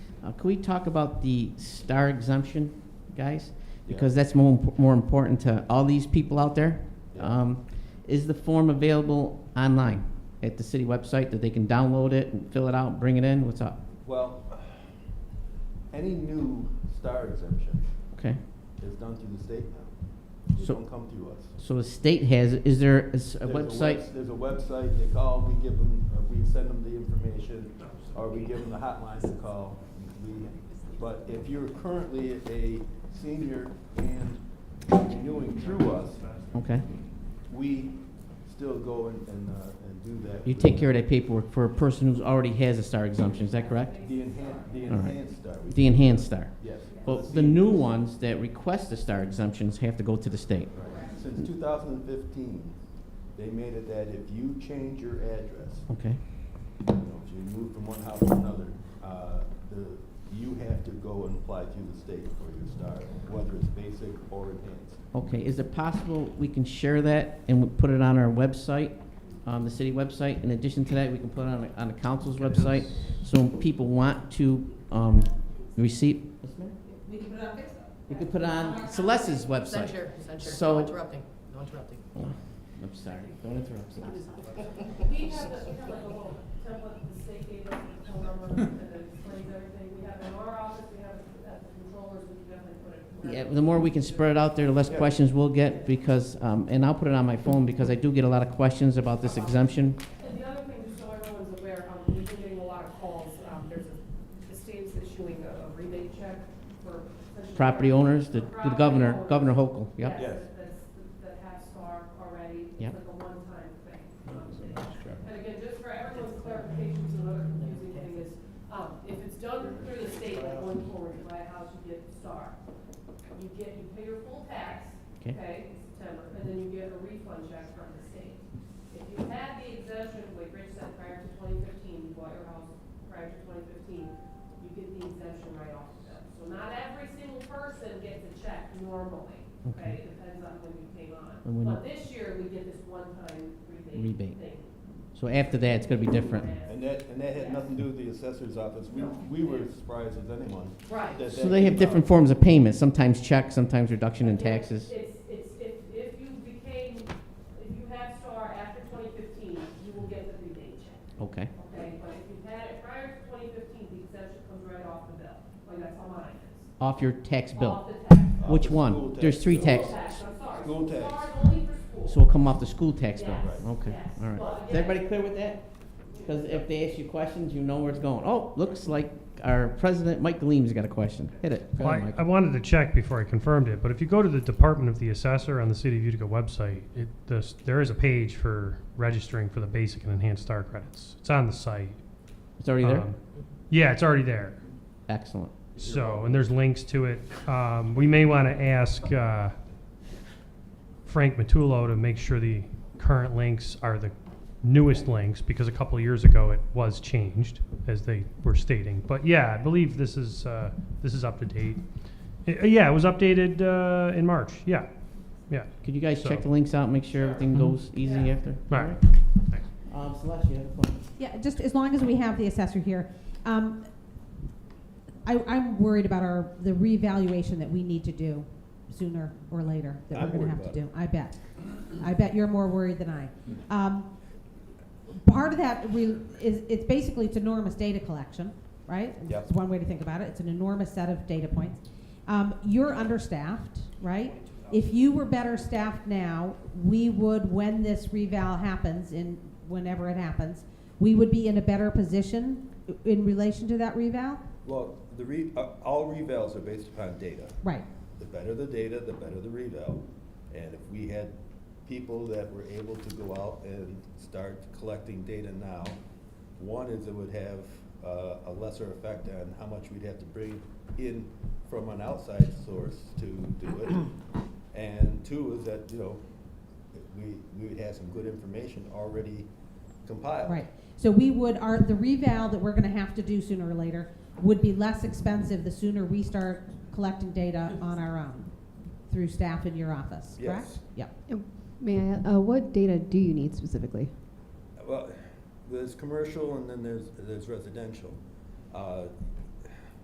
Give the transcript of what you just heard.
Uh, Can we talk about the star exemption, guys? Because that's more, imp- more important to all these people out there. Yeah. Um, is the form available online at the city website that they can download it and fill it out, bring it in? What's up? Well, any new star exemption Okay. is done through the state now. It So- don't come through us. So the state has, it. Is there is a There's webs- website? There's a website, they call, we give them, uh, we send them the information, or we give them the hotlines to call. We- But if you're currently a senior and renewing through us, Okay. we still go and, and, uh, and do that. You take care of that paperwork for a person who's already has a star exemption, is that correct? The enhanced, the All right. enhanced star. we- The enhanced star. Yes. But the new ones that request the star exemptions have to go to the state. Since 2015, they made it that if you change your address, Okay. you know, if you move from one house to another, uh, the, you have to go and apply through the state for your star, whether it's basic or enhanced. Okay, is it possible we can share that and we put it on our website, on the city website? In addition to that, we can put it on, the- on the council's website, so when people want to, um, receive. Yes, ma'am? We can put it on Facebook. We could put it on Celeste's website. Censure, censure, So- no interrupting, no interrupting. Oh, I'm sorry, don't interrupt, Celeste. We have a, we have like a whole template that the state gave us, with the phone number, that explains everything, we have it in our office, we have it at the controllers, we can definitely put it. Yeah, the more we can spread it out there, the less Yeah. questions we'll get, because, um, and I'll put it on my phone, because I do get a lot of questions about this exemption. And the other thing, just so everyone's aware, um, we've been getting a lot of calls, um, there's a, the state's issuing a a rebate check for. Property owners, the, the governor, Governor Hochul, yep. Yes. That's, that has STAR already, it's Yep. like a one-time thing. um, thing. And again, just for everyone's clarification, so another confusing thing is, um, if it's done through the state, like going forward, you buy a house, you get star. You get, you pay your full tax, Okay. okay, in September, and then you get a refund check from the state. If you had the exemption, like Rich said, prior to twenty fifteen, you bought your house prior to twenty fifteen, you get the exemption right off the bat. So not every single person gets a check normally, okay, it depends on when you came on. And when you- But this year, we get this one-time rebate Rebate. thing. So after that, it's gonna be different. And that, and that had nothing to do with the assessor's office. We, we were as surprised as anyone. Right. that So that they have came different out. forms of payment, sometimes checks, sometimes reduction in taxes. It's, it's, if, if you became, if you had STAR after twenty fifteen, you will get the rebate check, Okay, okay? But if you had it prior to twenty fifteen, the exemption comes right off the bill, like that's how mine is. off your tax Off bill. the tax. Off Which the one? school tax There's three bill. tax. Tax, I'm sorry. School tax. STAR is only for school. So it'll come off the school tax bill. Yes, Okay, yes. all Well, right. Is yeah. everybody clear with that? Because if they ask you questions, you know where it's going. Oh, looks like our president, Mike Gleam's got a question. Hit it. Go Well, ahead, I, I Mike. wanted to check before I confirmed it, but if you go to the Department of the Assessor on the City of Utica website, it, this, there is a page for registering for the basic and enhanced star credits. It's on the site. It's already there? Um, Yeah, it's already there. Excellent. So, and there's links to it. Um, we may want to ask, uh, Frank Matulo to make sure the current links are the newest links, because a couple of years ago it was changed, as they were stating. But yeah, I believe this is, uh, this is up to date. Uh, yeah, it was updated, uh, in March, yeah, yeah. Could you guys check So- the links out, make sure everything Mhm. goes easy Yeah. after? All right. Thanks. Um, Celeste, you have a question? Yeah, just as long as we have the assessor here. Um, I, I'm worried about our, the revaluation that we need to do sooner or later that I'm we're worried gonna have to about it. do. I bet. I bet you're more worried than I. Um, part of that re- is, it's basically, it's enormous data collection, right? Yep. It's one way to think about it. It's an enormous set of data points. Um, you're understaffed, right? If you were better staffed now, we would, when this reval happens, in whenever it happens, we would be in a better position in relation to that reval? Well, the re, uh, all revals are based upon data. Right. The better the data, the better the reval. And if we had people that were able to go out and start collecting data now, one is it would have uh, a lesser effect on how much we'd have to bring in from an outside source to do it. And two is that, you know, we, we would have some good information already compiled. Right. So we would, our, the reval that we're gonna have to do sooner or later would be less expensive the sooner we start collecting data on our own through staff in your office, correct? Yes. Yep. May I, uh, what data do you need specifically? Well, there's commercial and then there's, there's residential. Uh,